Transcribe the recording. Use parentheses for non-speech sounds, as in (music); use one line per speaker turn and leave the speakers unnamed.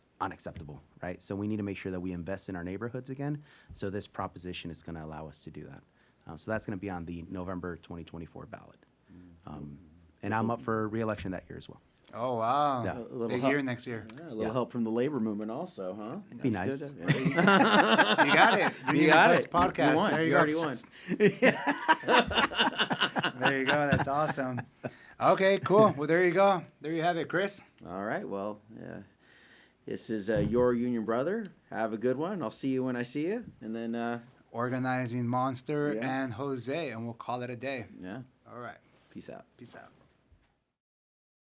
unacceptable, right? So we need to make sure that we invest in our neighborhoods again. So this proposition is going to allow us to do that. Uh, so that's going to be on the November 2024 ballot. Um, and I'm up for reelection that year as well.
Oh, wow.
Yeah. A
little
Big
help.
year
(laughs)
next year.
Yeah, a little
Yeah.
help from the labor movement also, huh?
It'd be
That's good. (laughs)
You got it.
You
need the
got
best
it. You- you
Podcast.
won.
There
You
go.
already
(laughs)
won.
there you go. That's awesome. Okay, cool. Well, there you go. There you have it, Chris.
All right. Well, yeah. This is uh, your union brother. Have a good one. I'll see you when I see you. And then, uh,
Organizing Monster
Yeah.
and Jose, and we'll call it a day.
yeah,
All right.
peace out.
Peace out.